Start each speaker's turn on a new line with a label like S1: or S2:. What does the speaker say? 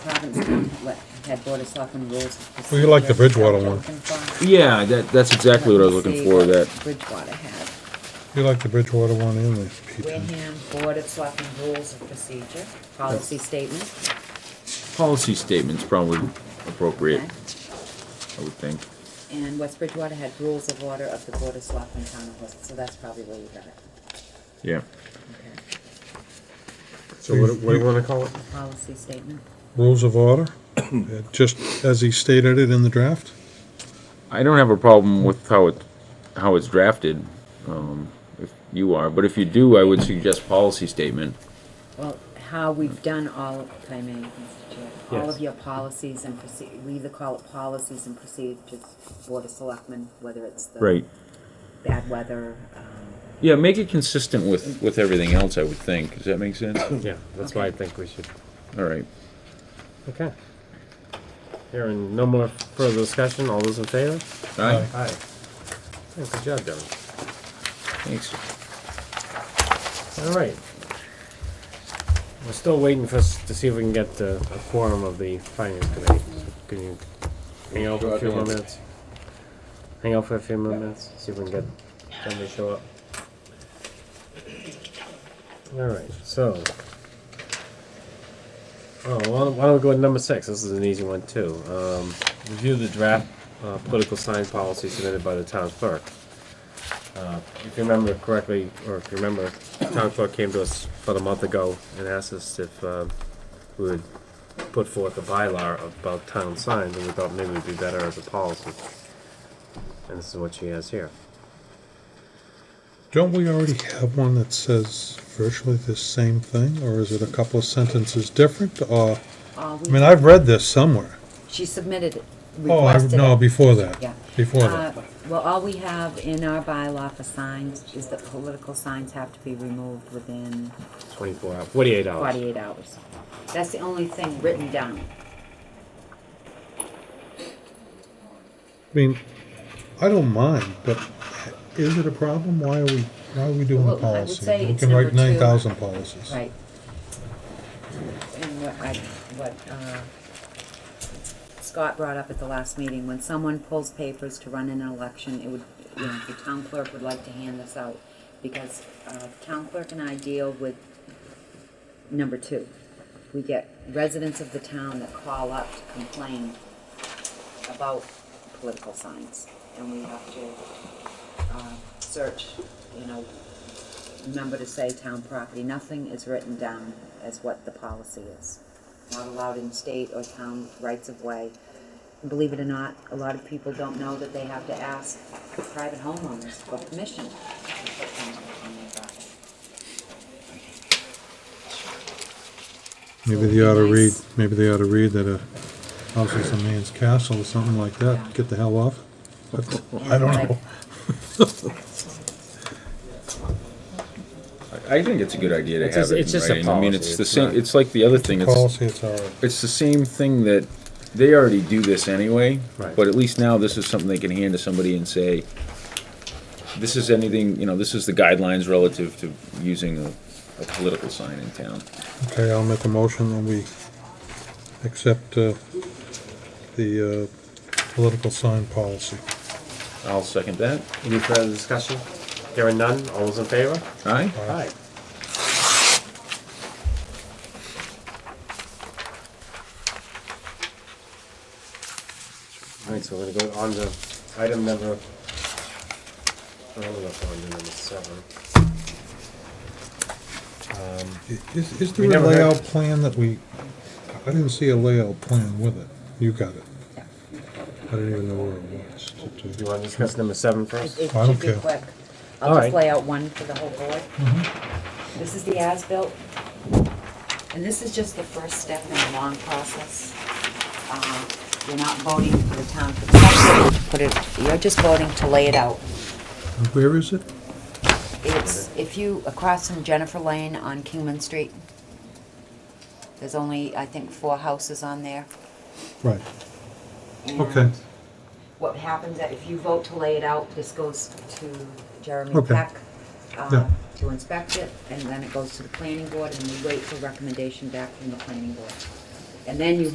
S1: Provincetown let- had Board of Selectmen rules. of
S2: We like the
S1: procedure.
S2: Bridgewater one.
S1: Looking for-
S3: Yeah, that, that's exactly what I was
S1: Let me
S3: looking
S1: see
S3: for,
S1: what
S3: that,
S1: Bridgewater had.
S2: You like the Bridgewater one in the P2.
S1: Wareham Board of Selectmen rules of procedure, policy statement.
S3: policy statement's probably appropriate,
S1: okay.
S3: I would think.
S1: And West Bridgewater had rules of order of the Board of Selectmen Town of Worcester, so that's probably where you got it.
S3: Yeah.
S1: Okay.
S4: So what, what do you wanna call it?
S1: Policy statement.
S2: Rules of order, uh, just as he stated it in the draft.
S3: I don't have a problem with how it, how it's drafted, um, if you are, but if you do, I would suggest policy statement.
S1: Well, how we've done all, if I may, Mr. Chair, all of
S4: Yes.
S1: your policies and proceed, we either call it policies and procedures, Board of Selectmen, whether it's the bad weather, um,
S3: Yeah, make it consistent with, with everything else, I would think. Does that make sense?
S4: Yeah, that's why I think we should,
S3: All right.
S4: okay. Hearing no more further discussion, all those in favor?
S3: Aye.
S4: Aye. Yeah, Good job, Devin.
S3: Thanks.
S4: All right. We're still waiting for us to see if we can get uh, a quorum of the finance committee. Can you hang out for a few more minutes? Hang out for a few more minutes, see if we can get somebody to show up. All right, so. Oh, why don't- why don't we go to number six? This is an easy one too. Um, review the draft uh, political sign policy submitted by the town clerk. Uh, If you remember correctly, or if you remember, town clerk came to us about a month ago and asked us if um, we would put forth a bylaw about town signs, and we thought maybe it'd be better as a policy. And this is what she has here.
S2: Don't we already have one that says virtually the same thing, or is it a couple of sentences different, or,
S1: all
S2: I mean,
S1: Uh, we,
S2: I've read this somewhere.
S1: she submitted it,
S2: Oh, I,
S1: requested
S2: no,
S1: it.
S2: before that.
S1: Yeah.
S2: Before
S1: Uh,
S2: that.
S1: Well, all we have in our bylaw for signs is that political signs have to be removed within
S4: Twenty-four hours, forty-eight hours.
S1: forty-eight hours. That's the only thing written down.
S2: I mean, I don't mind, but is it a problem? Why are we, why are we doing
S1: Well,
S2: a
S1: I would
S2: policy?
S1: say
S2: We
S1: it's
S2: can write
S1: number two.
S2: nine thousand policies.
S1: Right. And what I, what, uh, Scott brought up at the last meeting, when someone pulls papers to run in an election, it would, you know, the town clerk would like to hand this out, because, uh, town clerk and I deal with number two. We get residents of the town that call up to complain about political signs, and we have to, uh, search, you know, remember to say town property, nothing is written down as what the policy is. Not allowed in state or town rights of way. Believe it or not, a lot of people don't know that they have to ask private homeowners for permission to put signs on their property.
S2: Maybe they ought to read, maybe they ought to read that a house is a man's castle or something like that, get the hell off. it. I don't know.
S3: I, I think it's a good idea to
S4: It's
S3: have
S4: just-
S3: it
S4: it's
S3: in
S4: just a
S3: writing. I mean,
S4: policy,
S3: it's the
S4: it's
S3: same,
S4: not-
S3: it's like the other thing. It's,
S2: Policy, it's all right.
S3: it's the same thing that, they already do this anyway.
S4: Right.
S3: But at least now this is something they can hand to somebody and say, this is anything, you know, this is the guidelines relative to using a, a political sign in town.
S2: Okay, I'll make a motion that we accept uh, the uh, political sign policy.
S3: I'll second that.
S4: Any further discussion? Hearing none, all those in favor?
S3: Aye?
S4: Aye. Alright, so we're gonna go on to item number, I don't know if we're on to number seven.
S2: Is is
S4: We
S2: there a
S4: never had-
S2: layout plan that we, I didn't see a layout plan with it. You got it.
S1: Yeah.
S2: I didn't even know where it was.
S4: Do you wanna discuss number seven first?
S1: It it
S2: I don't
S1: should be
S2: care.
S1: quick.
S4: All
S1: I'll
S4: right. Mm-hmm.
S1: just lay out one for the whole board. This is the as-built. And this is just the first step in a long process. Uh, You're not voting for the town to accept it, put it, you're just voting to lay it out.
S2: And Where is it?
S1: It's, if you, across from Jennifer Lane on Kingman Street, there's only, I think, four houses on there.
S2: Right,
S1: and
S2: okay,
S1: What happens that if you vote to lay it out, this goes to Jeremy
S2: Okay.
S1: Peck uh,
S2: Yeah.
S1: to inspect it, and then it goes to the planning board, and we wait for recommendation back from the planning board. And then you